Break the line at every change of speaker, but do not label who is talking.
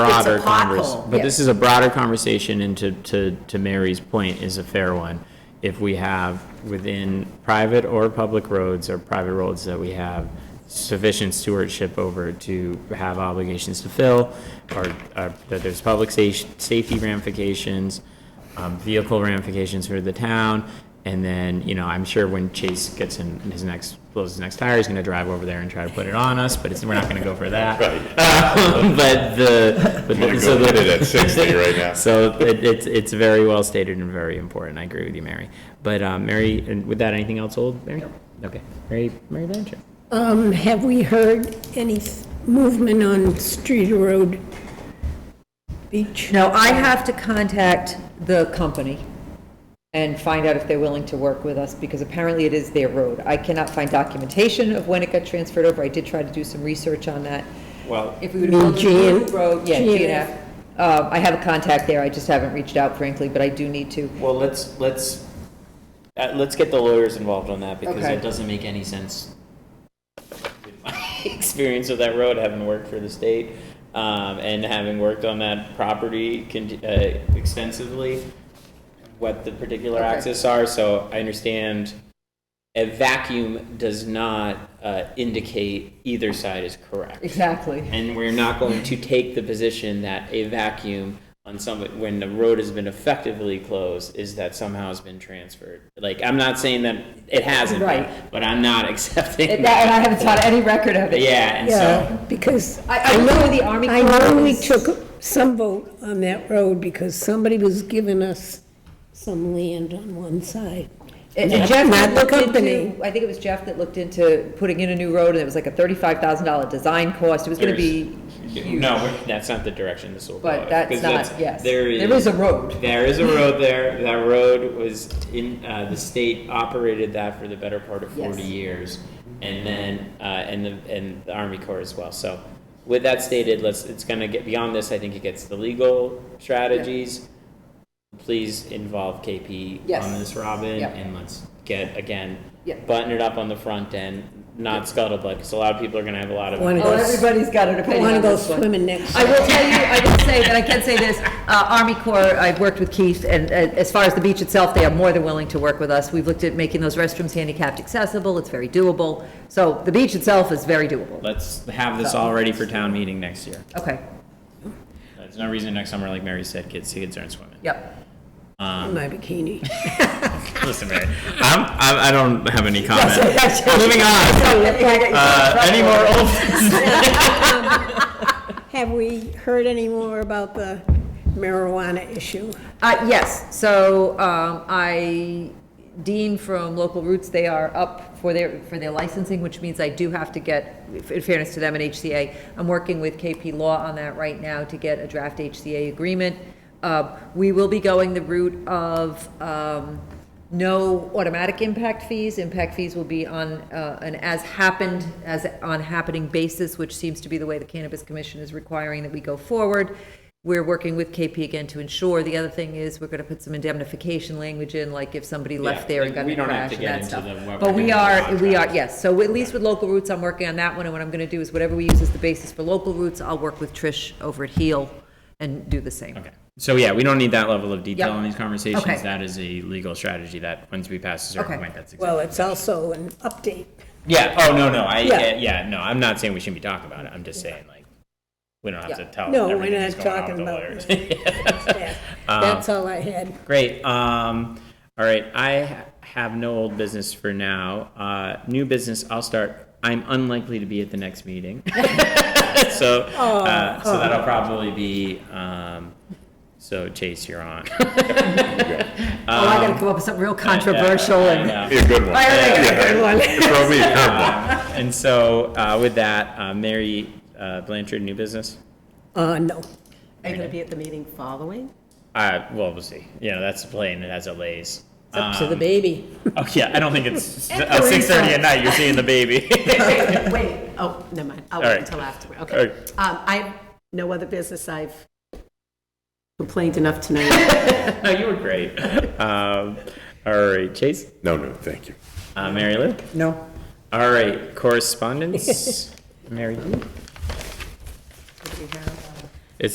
broader
pothole,
conversation, but this
yes.
is a broader conversation, and to, to, to Mary's point is a fair one. If we have within private or public roads or private roads that we have sufficient stewardship over to have obligations to fill, or, or that there's public sa- safety ramifications, um, vehicle ramifications for the town, and then, you know, I'm sure when Chase gets in his next, blows his next tire, he's gonna drive over there and try to put it on us, but it's, we're not gonna go for that. But the, but
Gonna
the, so
go hit it
the,
at sixty right now.
so it, it's, it's very well stated and very important. I agree with you, Mary. But, um, Mary, and with that, anything else old, Mary? Okay, Mary, Mary Blanchard.
Um, have we heard any s- movement on Street or Road Beach?
No, I have to contact the company and find out if they're willing to work with us, because apparently it is their road. I cannot find documentation of when it got transferred over. I did try to do some research on that. Well. If we would have built a new
GN.
road, yeah,
GNF.
GNF. Uh, I have a contact there, I just haven't reached out frankly, but I do need to.
Well, let's, let's, uh, let's get the lawyers involved on that because
Okay.
it doesn't make any sense. with my Experience of that road, having worked for the state, um, and having worked on that property con- uh, extensively, what the particular
Okay.
access are, so I understand a vacuum does not, uh, indicate either side is correct.
Exactly.
And we're not going to take the position that a vacuum on some, when the road has been effectively closed, is that somehow has been transferred. Like, I'm not saying that it hasn't,
Right.
but, but I'm not accepting
And that- and I
that.
haven't found any record of it.
Yeah, and so,
Yeah, because
I, I know the Army
I
Corps
know we
is-
took some vote on that road because somebody was giving us some land on one side.
And
Not-
and Jeff
not
had
the
looked
company.
into, I think it was Jeff that looked into putting in a new road, and it was like a thirty-five thousand dollar design cost, it was gonna be huge.
no, we're- that's not the direction this will go.
But that's
'cause
not, yes.
There
There is
is,
a road.
there is a road there. That road was in, uh, the state operated that for the better part of
Yes.
forty years. And then, uh, and the, and the Army Corps as well. So with that stated, let's, it's gonna get beyond this. I think it gets the legal strategies. Please involve KP
Yes.
on this, Robin,
Yep.
and let's get, again,
Yep.
button it up on the front end, not scuttlebutt, because a lot of people are gonna have a lot of.
Wanna
Oh, everybody's got an
I
opinion
want to
on
go
this one.
swimming next.
I will tell you, I will say that I can say this, uh, Army Corps, I've worked with Keith, and uh, as far as the beach itself, they are more than willing to work with us. We've looked at making those restrooms handicapped accessible, it's very doable. So the beach itself is very doable.
Let's have this all ready for town meeting next year.
Okay,
There's no reason next summer, like Mary said, kids, kids aren't swimming.
yep.
In my bikini.
Listen, Mary, I'm, I'm, I don't have any comment. Moving
Moving
on. Uh, any more old?
Have we heard any more about the marijuana issue?
Uh, yes, so, um, I, Dean from Local Roots, they are up for their, for their licensing, which means I do have to get, in fairness to them and HCA, I'm working with KP Law on that right now to get a draft HCA agreement. Uh, we will be going the route of, um, no automatic impact fees. Impact fees will be on uh, an as happened, as on happening basis, which seems to be the way the Cannabis Commission is requiring that we go forward. We're working with KP again to ensure. The other thing is, we're going to put some indemnification language in, like if somebody left there and
like,
got
we
in a
don't have
crash
to
and
get
that
into
stuff.
the- what we're
But we
doing with
are, we are,
contracts.
yes. So at least with local roots, I'm working on that one. And what I'm going to do is whatever we use as the basis for local roots, I'll work with Trish over at Heal and do the same.
Okay, so yeah, we don't need that level of detail
Yep.
in these conversations.
Okay.
That is a legal strategy that once we pass a certain
Okay.
point, that's.
Well, it's also an update.
Yeah, oh, no, no, I,
Yeah.
yeah, yeah, no, I'm not saying we shouldn't be talking about it. I'm just saying like, we don't have to
Yeah.
tell.
No, we're
everything that's
not
going on
talking
with the
about
lawyers.
That's all I had.
Great. Um, all right. I ha- have no old business for now. Uh, new business. I'll start. I'm unlikely to be at the next meeting, so uh, so that'll probably be. Um, so Chase, you're on.
Oh, I
Um,
got to come up with something real controversial and.
Be a good one.
I already got a
Yeah.
good one.
Throw me a curveball.
and so uh, with that, uh, Mary uh, Blanchard, new business.
Uh, no.
Are you going to be at the meeting following?
Uh, well, we'll see. You know, that's the plane. It has a lays.
It's up to the baby.
Oh yeah, I don't think it's
And
uh, six thirty
Teresa.
at night. You're seeing the baby.
Wait, oh, never mind. I'll
All right.
wait until afterward. Okay.
All right.
Um, I have no other business. I've complained enough tonight.
no, you were great. Um, all right, Chase.
No, no, thank you.
Uh, Mary Lou? No. All right, correspondence? Mary Lou?
What do we have?